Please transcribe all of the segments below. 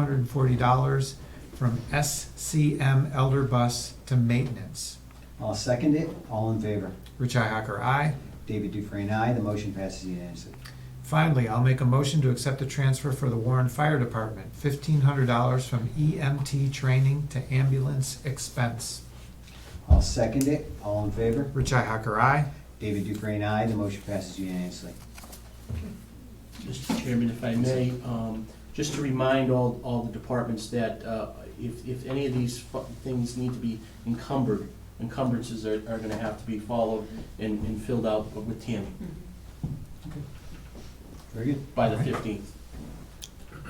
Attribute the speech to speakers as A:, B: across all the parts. A: hundred and forty dollars from SCM Elder Bus to maintenance.
B: I'll second it. All in favor?
A: Richi Hacker, aye.
B: David Dufresne, aye. The motion passes unanimously.
A: Finally, I'll make a motion to accept the transfer for the Warren Fire Department, fifteen hundred dollars from EMT training to ambulance expense.
B: I'll second it. All in favor?
A: Richi Hacker, aye.
B: David Dufresne, aye. The motion passes unanimously.
C: Mr. Chairman, if I may, um, just to remind all, all the departments that uh, if, if any of these fu- things need to be encumbered, encumbrances are, are gonna have to be followed and, and filled out with Tammy
B: Very good.
C: by the fifteenth.
B: You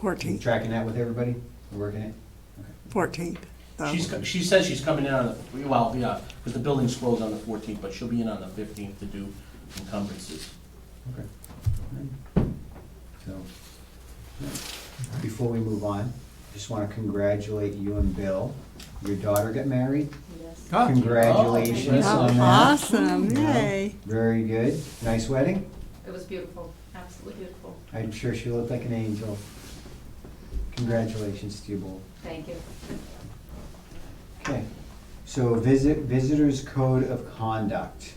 D: 14th,
B: Tracking that with everybody? We're Working it?
D: 14th. um,
C: She's, co- she says she's coming in on the, well, yeah, because the building's closed on the fourteenth, but she'll be in on the fifteenth to do encumbrances.
B: Okay. So, before we move on, just want to congratulate you and Bill. Your daughter got married.
E: Yes.
A: Oh,
B: Congratulations on that.
D: Oh, Awesome, yay.
B: Very good. Nice wedding.
E: It was beautiful, absolutely beautiful.
B: I'm sure she looked like an angel. Congratulations to you both.
E: Thank you.
B: Okay, so visit, visitors code of conduct.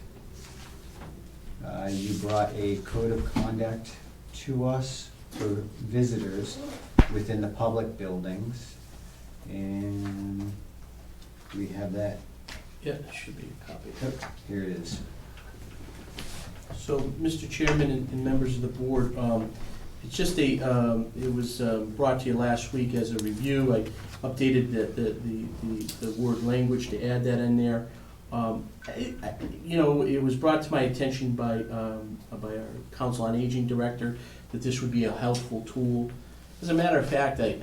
B: Uh, you brought a code of conduct to us for visitors within the public buildings. And we have that,
C: Yeah, it should be a copy.
B: oh, here it is.
C: So, Mr. Chairman and and members of the board, um, it's just a, um, it was uh, brought to you last week as a review. I updated the, the- the, the- the word language to add that in there. Um, I- I- You know, it was brought to my attention by, um, by our Council on Aging Director that this would be a helpful tool. As a matter of fact, I,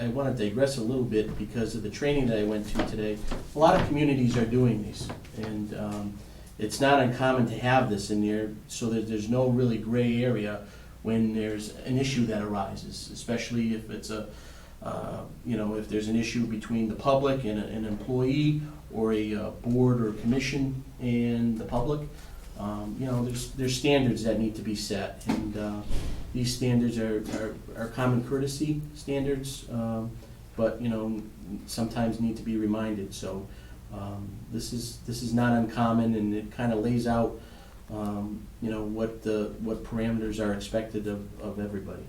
C: I, I want to digress a little bit because of the training that I went to today. A lot of communities are doing these, and, um, it's not uncommon to have this in there so that there's no really gray area when there's an issue that arises, especially if it's a, uh, you know, if there's an issue between the public and a- an employee or a uh, board or commission and the public. Um, You know, there's, there's standards that need to be set, and uh, these standards are, are- are common courtesy standards, um, but, you know, sometimes need to be reminded, so um, This is, this is not uncommon, and it kind of lays out, um, you know, what the, what parameters are expected of, of everybody.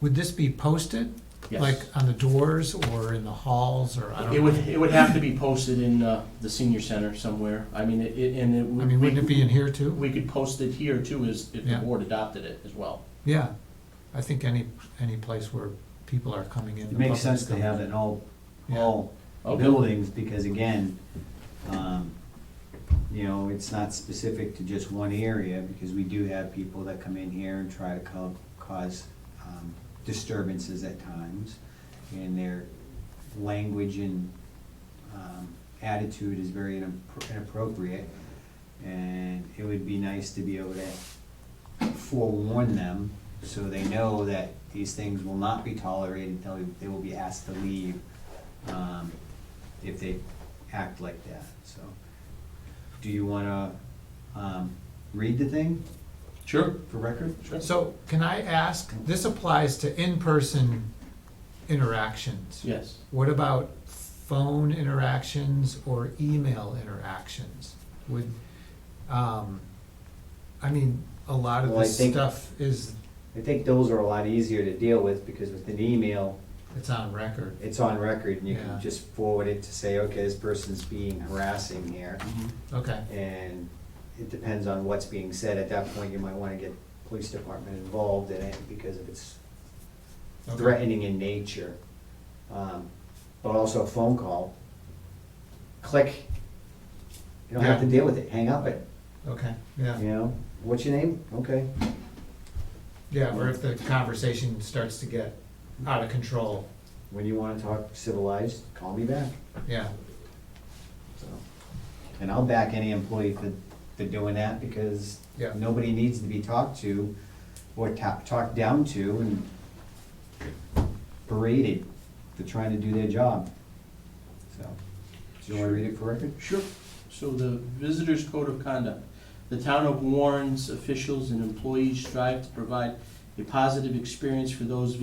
A: Would this be posted?
C: Yes.
A: Like on the doors or in the halls or I don't know?
C: It would, it would have to be posted in uh, the senior center somewhere. I mean, it, it- and it would.
A: I mean, wouldn't it be in here too?
C: We could post it here too, as, if the
A: Yeah.
C: board adopted it as well.
A: Yeah, I think any, any place where people are coming in.
B: It
A: the
B: makes
A: public's
B: sense to
A: coming
B: have
A: in.
B: it in all,
A: Yeah.
B: all
C: Okay.
B: buildings, because again, um, you know, it's not specific to just one area, because we do have people that come in here and try to co- cause um, disturbances at times, and their language and um, attitude is very inappro- inappropriate, and it would be nice to be able to forewarn them, so they know that these things will not be tolerated, they'll- they will be asked to leave, um, if they act like that, so. Do you wanna, um, read the thing
C: Sure.
B: for record?
C: Sure.
A: So can I ask, this applies to in-person interactions.
C: Yes.
A: What about phone interactions or email interactions? Would, um, I mean, a lot of
B: Well, I
A: this
B: think-
A: stuff is,
B: I think those are a lot easier to deal with, because with an email,
A: it's on record.
B: it's on record, and you
A: Yeah.
B: can just forward it to say, okay, this person's being harassing here,
A: Okay,
B: and it depends on what's being said, at that point, you might wanna get police department involved in it, because if it's
A: Okay.
B: threatening in nature, um, but also a phone call. Click. You don't have to
A: Yeah.
B: deal with it. Hang up it.
A: okay, yeah,
B: You know, what's your name? Okay.
A: yeah, or if the conversation starts to get out of control,
B: When you want to talk civilized, call me back.
A: yeah.
B: So, and I'll back any employee for, for doing that because
A: Yeah.
B: nobody needs to be talked to or ta- talked down to and berated for trying to do their job. So, do you want to read it for record?
C: Sure. So the Visitors Code of Conduct. The Town of Warren's officials and employees strive to provide a positive experience for those